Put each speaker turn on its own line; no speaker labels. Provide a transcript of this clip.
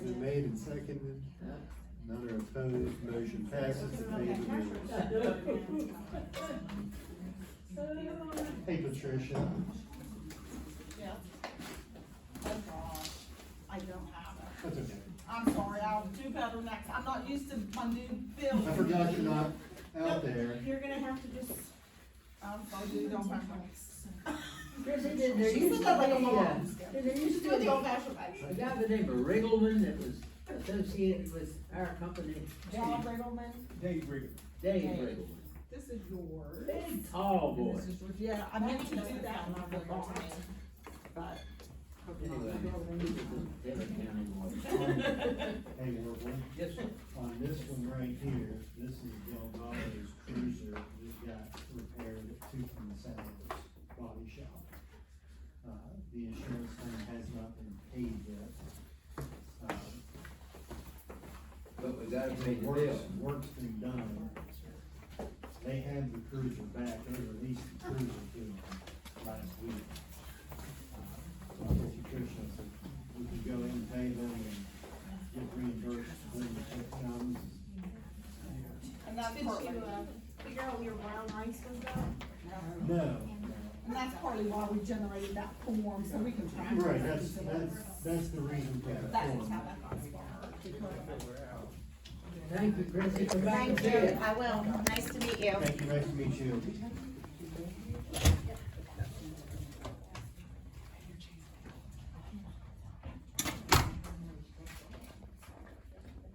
made and seconded, none are opposed, motion passes to pay the bills. Hey Patricia,
Yeah. Oh, gosh, I don't have it.
that's okay,
I'm sorry, I'll do better next, I'm not used to my new bill.
I forgot you're not out there.
You're gonna have to just, I'm sorry, you don't have my.
Chrissy, did there
She
used
said that like a
to
mom.
be, a- did there used
Do
to be
the old
a
fashioned way.
a guy by the name of Riggleman that was associated with our company,
John Riddleman,
Dave Riggle.
Dave Riggleman?
this is yours.
Big tall boy.
This is yours, yeah, I meant to do that when I forgot, but.
Anyway, he was a Taylor County boy.
Hey, Warble,
Yes, sir.
on this one right here, this is Del Vado's cruiser that got repaired at Two from the Salvage Body Shop. Uh, the insurance claim has not been paid yet. Uh,
But we gotta pay the
Work's,
bill.
work's been done. They had the cruiser back, they released the cruiser to them last week. Uh, So I told Patricia, I said, we could go in and pay them and get reimbursed when the check comes.
And that's
Did you,
partly,
uh, figure out where wild rice was at?
No, no.
and that's partly why we generated that form, so we can track.
Right,
it.
that's, that's, that's the reason for that
That's how
form.
that got started.
Thank you, Chrissy, for back
Thank
to
you, I will, nice to meet you.
Thank you, nice to meet you.